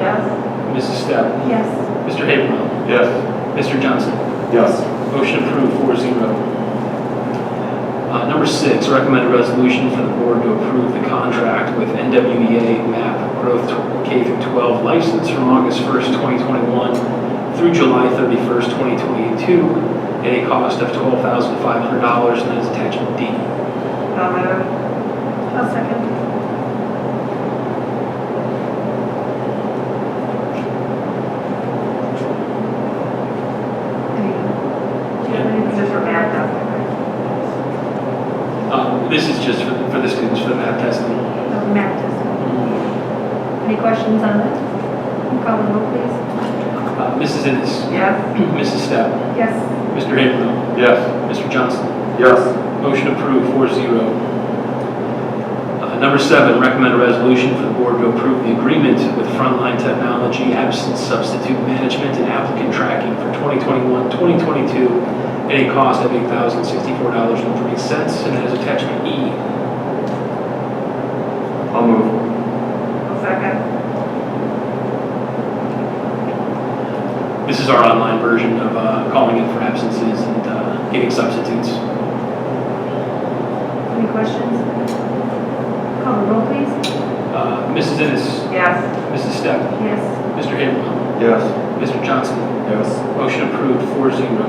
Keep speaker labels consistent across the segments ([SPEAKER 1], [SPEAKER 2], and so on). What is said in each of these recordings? [SPEAKER 1] Yes.
[SPEAKER 2] Mrs. Step,
[SPEAKER 1] Yes.
[SPEAKER 2] Mr. Habermill,
[SPEAKER 3] Yes.
[SPEAKER 2] Mr. Johnson.
[SPEAKER 3] Yes.
[SPEAKER 2] Motion approved 4-0. Uh, Number six, recommend a resolution for the board to approve the contract with NWEA MAP Growth Tw- K through 12 license from August 1st, 2021 through July 31st, 2022, at a cost of $12,500 and is attachment D.
[SPEAKER 1] I'll move. I'll second. Just for math, that's
[SPEAKER 2] Uh, This is just for for the students for the MAP testing.
[SPEAKER 1] it. No, math test. Any questions on that? Call the roll, please.
[SPEAKER 2] Uh, Mrs. Ennis,
[SPEAKER 1] Yes.
[SPEAKER 2] Mrs. Step,
[SPEAKER 1] Yes.
[SPEAKER 2] Mr. Habermill,
[SPEAKER 3] Yes.
[SPEAKER 2] Mr. Johnson.
[SPEAKER 3] Yes.
[SPEAKER 2] Motion approved, 4-0. Uh, Number seven, recommend a resolution for the board to approve the agreement with Frontline Technology Absence Substitute Management and Applicant Tracking for 2021-2022 at a cost of $8,064.03, and that is attachment E.
[SPEAKER 3] I'll move.
[SPEAKER 1] Second.
[SPEAKER 2] This is our online version of uh, calling in for absences and uh, getting substitutes.
[SPEAKER 1] Any questions? Call the roll, please.
[SPEAKER 2] Uh, Mrs. Ennis,
[SPEAKER 1] Yes.
[SPEAKER 2] Mrs. Stepp,
[SPEAKER 1] Yes.
[SPEAKER 2] Mr. Habermill,
[SPEAKER 3] Yes.
[SPEAKER 2] Mr. Johnson.
[SPEAKER 3] Yes.
[SPEAKER 2] Motion approved, 4-0.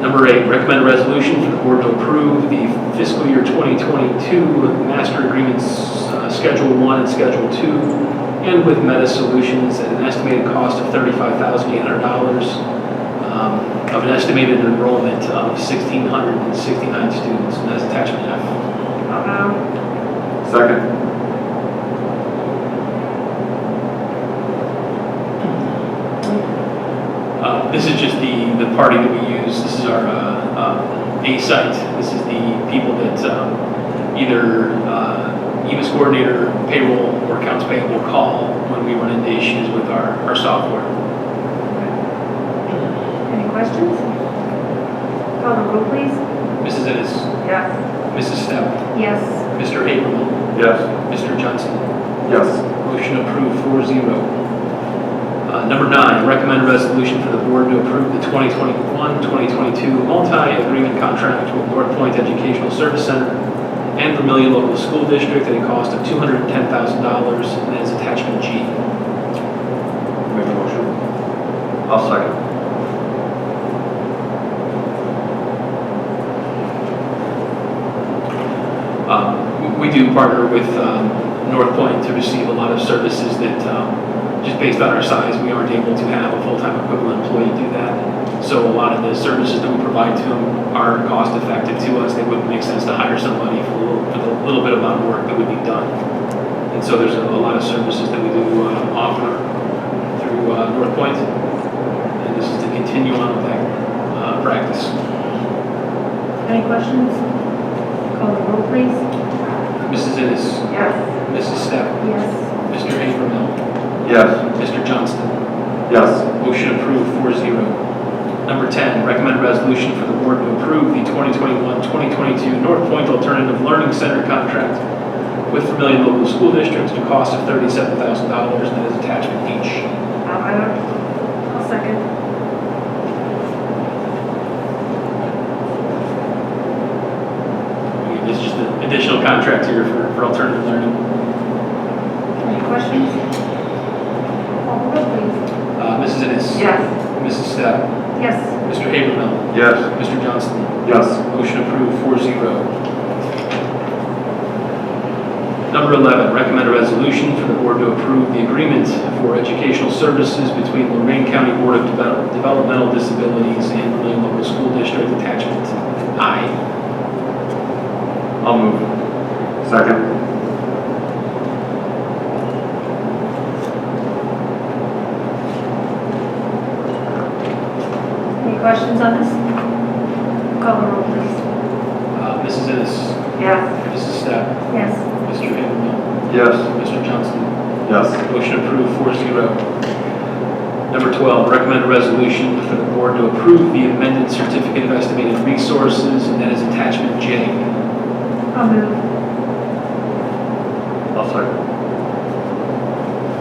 [SPEAKER 2] Number eight, recommend a resolution for the board to approve the fiscal year 2022 master agreements, uh, Schedule 1 and Schedule 2, and with Meta Solutions at an estimated cost of $35,800, um, of an estimated enrollment of 1,669 students, and that's attachment F.
[SPEAKER 1] I'll
[SPEAKER 3] Second.
[SPEAKER 2] Uh, This is just the, the party that we use, this is our uh, uh, A site, this is the people that um, either uh, EMS coordinator, payroll, or accounts payable call when we run into issues with our, our software.
[SPEAKER 1] Any questions? Call the roll, please.
[SPEAKER 2] Mrs. Ennis,
[SPEAKER 1] Yes.
[SPEAKER 2] Mrs. Stepp,
[SPEAKER 1] Yes.
[SPEAKER 2] Mr. Habermill,
[SPEAKER 3] Yes.
[SPEAKER 2] Mr. Johnson.
[SPEAKER 3] Yes.
[SPEAKER 2] Motion approved, 4-0. Uh, Number nine, recommend a resolution for the board to approve the 2021-2022 multi-agreement contract with North Point Educational Service Center and Vermillion Local School District at a cost of $210,000, and that is attachment G.
[SPEAKER 3] Make a motion. I'll second.
[SPEAKER 2] Um, We do partner with um, North Point to receive a lot of services that, um, just based on our size, we aren't able to have a full-time equivalent employee do that. So a lot of the services that we provide to them are cost-effective to us. They wouldn't make sense to hire somebody for a little- for the little bit amount of work that would be done. And so there's a a lot of services that we do uh, offer through uh, North Point. And this is to continue on with that uh, practice.
[SPEAKER 1] Any questions? Call the roll, please.
[SPEAKER 2] Mrs. Ennis,
[SPEAKER 1] Yes.
[SPEAKER 2] Mrs. Stepp,
[SPEAKER 1] Yes.
[SPEAKER 2] Mr. Havermill,
[SPEAKER 3] Yes.
[SPEAKER 2] Mr. Johnston.
[SPEAKER 3] Yes.
[SPEAKER 2] Motion approved 4-0. Number 10, recommend resolution for the board to approve the 2021-2022 North Point Alternative Learning Center contract with Vermillion Local School Districts at a cost of $37,000 and that is attachment H.
[SPEAKER 1] I'll move. I'll second.
[SPEAKER 2] Okay, This is just an additional contract here for for alternative learning.
[SPEAKER 1] Any questions? Call the roll, please.
[SPEAKER 2] Uh, Mrs. Ennis.
[SPEAKER 1] Yes.
[SPEAKER 2] Mrs. Stepp.
[SPEAKER 1] Yes.
[SPEAKER 2] Mr. Habermill.
[SPEAKER 3] Yes.
[SPEAKER 2] Mr. Johnston.
[SPEAKER 3] Yes.
[SPEAKER 2] Motion approved, 4-0. Number 11, recommend a resolution for the board to approve the agreement for educational services between Lorraine County Board of Devel- Developmental Disabilities and Lorraine Local School District Attachment I.
[SPEAKER 3] I'll move. Second.
[SPEAKER 1] Any questions on this? Call the roll, please.
[SPEAKER 2] Uh, Mrs. Ennis,
[SPEAKER 1] Yes.
[SPEAKER 2] Mrs. Stepp,
[SPEAKER 1] Yes.
[SPEAKER 2] Mr. Habermill,
[SPEAKER 3] Yes.
[SPEAKER 2] Mr. Johnson.
[SPEAKER 3] Yes.
[SPEAKER 2] Motion approved, 4-0. Number 12, recommend a resolution for the board to approve the amended certificate of estimated resources, and that is attachment J.
[SPEAKER 1] I'll move.
[SPEAKER 3] I'll second.